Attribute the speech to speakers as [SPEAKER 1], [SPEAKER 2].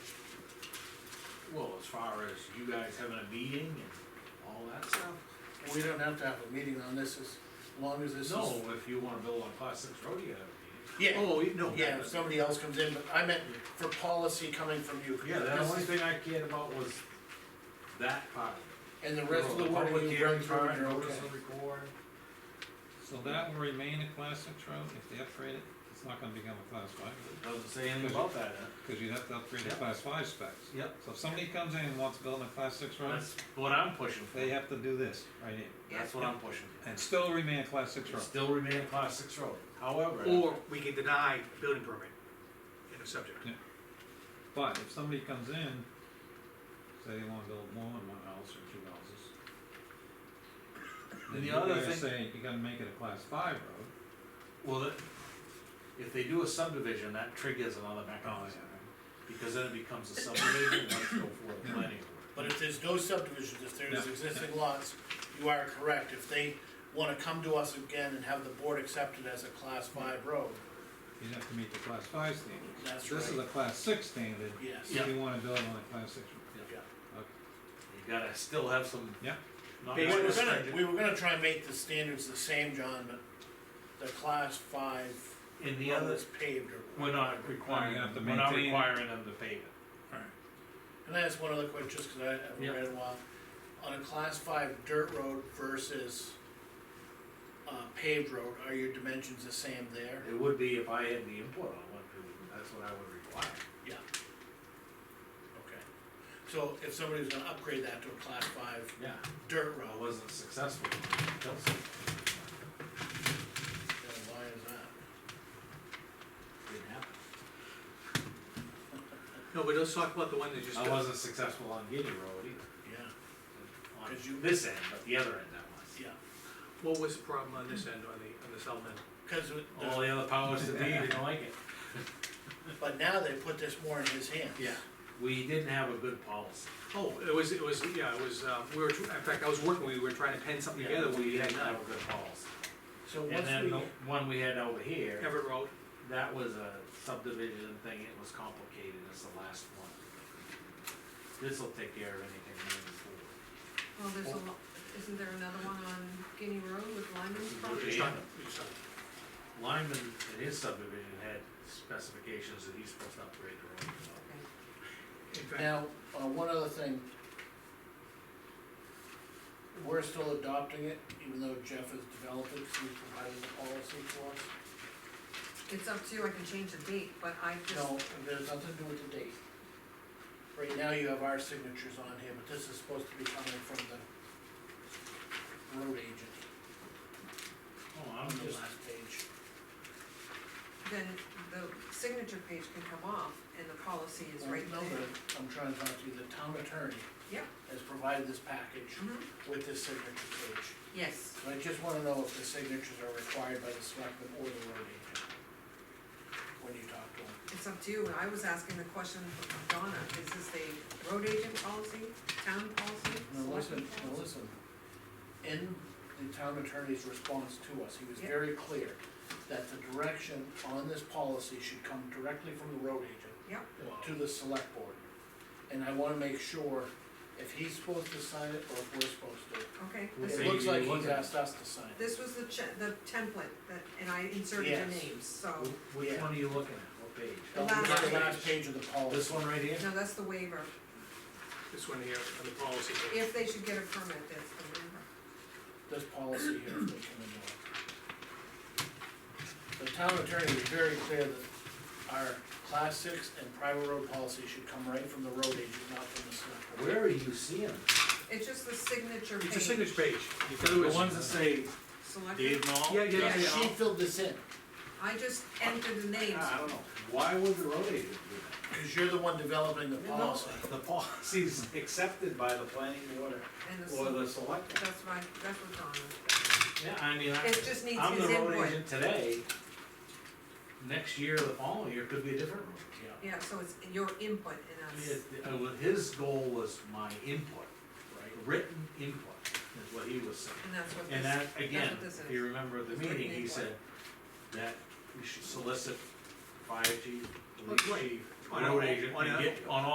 [SPEAKER 1] far as you guys having a meeting and all that stuff?
[SPEAKER 2] We don't have to have a meeting on this, as long as this is.
[SPEAKER 1] No, if you wanna build on class six road, you have a meeting.
[SPEAKER 2] Yeah.
[SPEAKER 1] Oh, you- no.
[SPEAKER 2] Yeah, if somebody else comes in, but I meant for policy coming from you.
[SPEAKER 1] Yeah, the
[SPEAKER 2] This
[SPEAKER 1] only
[SPEAKER 2] is-
[SPEAKER 1] thing I cared about was that part of it.
[SPEAKER 2] And the rest of the wording
[SPEAKER 1] Public
[SPEAKER 2] you
[SPEAKER 1] hearing
[SPEAKER 2] bring through,
[SPEAKER 1] part,
[SPEAKER 2] you're
[SPEAKER 1] notice
[SPEAKER 2] okay.
[SPEAKER 1] of record.
[SPEAKER 3] So that will remain a class six road, if they upgrade it, it's not gonna become a class five road,
[SPEAKER 1] Doesn't say anything about that, huh?
[SPEAKER 3] cause you'd have to upgrade the
[SPEAKER 1] Yep.
[SPEAKER 3] class five specs.
[SPEAKER 1] Yep.
[SPEAKER 3] So if somebody comes in and wants to build a class six road,
[SPEAKER 1] That's what I'm pushing for,
[SPEAKER 3] they have to do this, right here,
[SPEAKER 1] that's what I'm pushing for.
[SPEAKER 3] and still remain a class six
[SPEAKER 1] It
[SPEAKER 3] road.
[SPEAKER 1] Still remain a class six road, however.
[SPEAKER 4] Or we can deny building permit in the subject.
[SPEAKER 3] But if somebody comes in, say they wanna build more than one house or two houses.
[SPEAKER 1] And
[SPEAKER 3] Then
[SPEAKER 1] the
[SPEAKER 3] you
[SPEAKER 1] other
[SPEAKER 3] gotta
[SPEAKER 1] thing-
[SPEAKER 3] say, you gotta make it a class five road.
[SPEAKER 1] Well, that- if they do a subdivision, that triggers another
[SPEAKER 3] Oh,
[SPEAKER 2] Oh,
[SPEAKER 1] mechanism, because then it becomes a subdivision, and that's go for the planning board.
[SPEAKER 2] But if there's no subdivisions, if there's
[SPEAKER 3] Yeah.
[SPEAKER 2] existing lots, you are correct, if they wanna come to us again and have the board accept it as a class five road,
[SPEAKER 3] You'd have to meet the class five standard.
[SPEAKER 2] that's
[SPEAKER 3] This is
[SPEAKER 2] right,
[SPEAKER 3] a class six standard,
[SPEAKER 2] yes.
[SPEAKER 3] if you wanna build on a class six road.
[SPEAKER 1] You gotta still have some.
[SPEAKER 3] Yeah.
[SPEAKER 1] Not
[SPEAKER 2] We were
[SPEAKER 1] just
[SPEAKER 2] gonna,
[SPEAKER 1] restricted.
[SPEAKER 2] we were gonna try and make the standards the same, John, but the class five
[SPEAKER 1] And the
[SPEAKER 2] road
[SPEAKER 1] other,
[SPEAKER 2] is paved or.
[SPEAKER 1] we're not requiring,
[SPEAKER 3] You're gonna have to
[SPEAKER 1] we're not
[SPEAKER 3] maintain it.
[SPEAKER 1] requiring them to pave it.
[SPEAKER 2] Can I ask one other question, just cause I haven't
[SPEAKER 1] Yeah.
[SPEAKER 2] read in a while? On a class five dirt road versus uh paved road, are your dimensions the same there?
[SPEAKER 1] It would be if I had the input on what, to do, that's what I would require.
[SPEAKER 2] Okay. So if somebody was gonna upgrade that to a class five
[SPEAKER 1] Yeah.
[SPEAKER 2] dirt
[SPEAKER 1] I
[SPEAKER 2] road,
[SPEAKER 1] wasn't successful. with Chelsea.
[SPEAKER 2] then why is that?
[SPEAKER 1] Didn't happen.
[SPEAKER 4] No, but let's talk about the one that just.
[SPEAKER 1] I wasn't successful on Guinea Road either.
[SPEAKER 2] Yeah,
[SPEAKER 1] On
[SPEAKER 2] 'Cause you-
[SPEAKER 1] this end, but the other end I was.
[SPEAKER 2] yeah,
[SPEAKER 4] What was the problem on this end, on the, on the south end?
[SPEAKER 2] cause with
[SPEAKER 1] All
[SPEAKER 2] the,
[SPEAKER 1] the other powers that be didn't like it.
[SPEAKER 2] but now they put this more in his hands.
[SPEAKER 1] Yeah, we didn't have a good policy.
[SPEAKER 4] Oh, it was, it was, yeah, it was, uh, we were, tr- in fact, I was working, we were trying to pen something together, we
[SPEAKER 1] We
[SPEAKER 4] had
[SPEAKER 1] didn't have
[SPEAKER 4] none.
[SPEAKER 1] a good policy.
[SPEAKER 2] So
[SPEAKER 1] And
[SPEAKER 2] once
[SPEAKER 1] then the
[SPEAKER 2] we,
[SPEAKER 1] one we had over here,
[SPEAKER 4] Everett Road,
[SPEAKER 1] that was a subdivision thing, it was complicated, it's the last one. This'll take care of anything moving forward.
[SPEAKER 5] Well, there's a lot, isn't there another one on Guinea Road with Lyman's
[SPEAKER 4] we
[SPEAKER 5] property?
[SPEAKER 4] just
[SPEAKER 1] Yeah.
[SPEAKER 4] talked- we just talked.
[SPEAKER 1] Lyman, in his subdivision, had specifications that he's supposed to upgrade the road.
[SPEAKER 4] in fact,
[SPEAKER 2] now, uh one other thing. We're still adopting it, even though Jeff has developed it, 'cause he provided the policy for us.
[SPEAKER 5] It's up to you, I can change the date, but I just,
[SPEAKER 2] No, there's nothing to do with the date. Right now you have our signatures on here, but this is supposed to be coming from the road agent,
[SPEAKER 1] Oh,
[SPEAKER 2] on the last page.
[SPEAKER 5] then the signature page can come off and the policy is right
[SPEAKER 2] No,
[SPEAKER 5] there.
[SPEAKER 2] but I'm trying to talk to you, the town attorney.
[SPEAKER 5] Yeah.
[SPEAKER 2] Has provided this package
[SPEAKER 5] Mhm.
[SPEAKER 2] with this signature page,
[SPEAKER 5] Yes,
[SPEAKER 2] so I just wanna know if the signatures are required by the selectman or the road agent. When you talk to him.
[SPEAKER 5] it's up to you, and I was asking the question from Donna, is this a road agent policy, town policy?
[SPEAKER 2] Now listen,
[SPEAKER 5] selectman
[SPEAKER 2] now
[SPEAKER 5] policy?
[SPEAKER 2] listen. In the town attorney's response to us, he was
[SPEAKER 5] Yeah.
[SPEAKER 2] very clear that the direction on this policy should come directly from the road agent
[SPEAKER 5] Yep,
[SPEAKER 2] to the select board. And I wanna make sure if he's supposed to sign it or if we're
[SPEAKER 5] okay,
[SPEAKER 1] We'll
[SPEAKER 2] supposed to.
[SPEAKER 5] This-
[SPEAKER 1] see.
[SPEAKER 2] It looks like
[SPEAKER 1] you look
[SPEAKER 2] he's
[SPEAKER 1] at-
[SPEAKER 2] asked us to sign it.
[SPEAKER 5] this was the che- the template that, and I inserted your
[SPEAKER 2] Yes.
[SPEAKER 5] names, so,
[SPEAKER 1] Wh- Which one are you looking at, what page?
[SPEAKER 5] The
[SPEAKER 2] Now, we got
[SPEAKER 5] last
[SPEAKER 2] The last page of the
[SPEAKER 1] This
[SPEAKER 2] policy.
[SPEAKER 1] one right here?
[SPEAKER 5] no, that's the waiver,
[SPEAKER 4] this one here, on the policy. page.
[SPEAKER 5] if they should get a permit, that's the waiver.
[SPEAKER 2] this policy here if they come into it. The town attorney was very clear that our class six and private road policy should come right from the road agent, not from the select board.
[SPEAKER 1] Where are you seeing? it?
[SPEAKER 5] It's just the signature page.
[SPEAKER 4] It's a signature page, because it
[SPEAKER 1] The
[SPEAKER 4] was,
[SPEAKER 1] ones that say
[SPEAKER 5] Selected,
[SPEAKER 1] Dave Knoll?
[SPEAKER 4] Yeah, yeah,
[SPEAKER 2] Yeah,
[SPEAKER 4] yeah, yeah.
[SPEAKER 2] she filled this in,
[SPEAKER 5] I just entered the names,
[SPEAKER 1] I don't know, why would the road agent do
[SPEAKER 2] cause you're the one developing the
[SPEAKER 1] that?
[SPEAKER 2] policy.
[SPEAKER 1] The policy's accepted by the planning board
[SPEAKER 5] and the,
[SPEAKER 1] or
[SPEAKER 5] sel-
[SPEAKER 1] the select.
[SPEAKER 5] that's my, that's what Donna,
[SPEAKER 1] Yeah, I mean, I,
[SPEAKER 5] it just needs
[SPEAKER 1] I'm the
[SPEAKER 5] his
[SPEAKER 1] road
[SPEAKER 5] input.
[SPEAKER 1] agent today. Next year, the following year could be a different road. Yeah.
[SPEAKER 5] Yeah, so it's your input in us,
[SPEAKER 1] It- uh, well, His goal was my input,
[SPEAKER 2] Right.
[SPEAKER 1] written input, is what he was saying.
[SPEAKER 5] and that's what
[SPEAKER 1] And
[SPEAKER 5] this,
[SPEAKER 1] that, again,
[SPEAKER 5] what this
[SPEAKER 1] if you remember at the
[SPEAKER 5] It's written
[SPEAKER 1] meeting, he
[SPEAKER 5] input.
[SPEAKER 1] said that we should solicit fire chief, police
[SPEAKER 4] Right.
[SPEAKER 1] chief,
[SPEAKER 4] On a-
[SPEAKER 1] road agent,
[SPEAKER 4] on
[SPEAKER 1] and
[SPEAKER 4] a-
[SPEAKER 1] get on all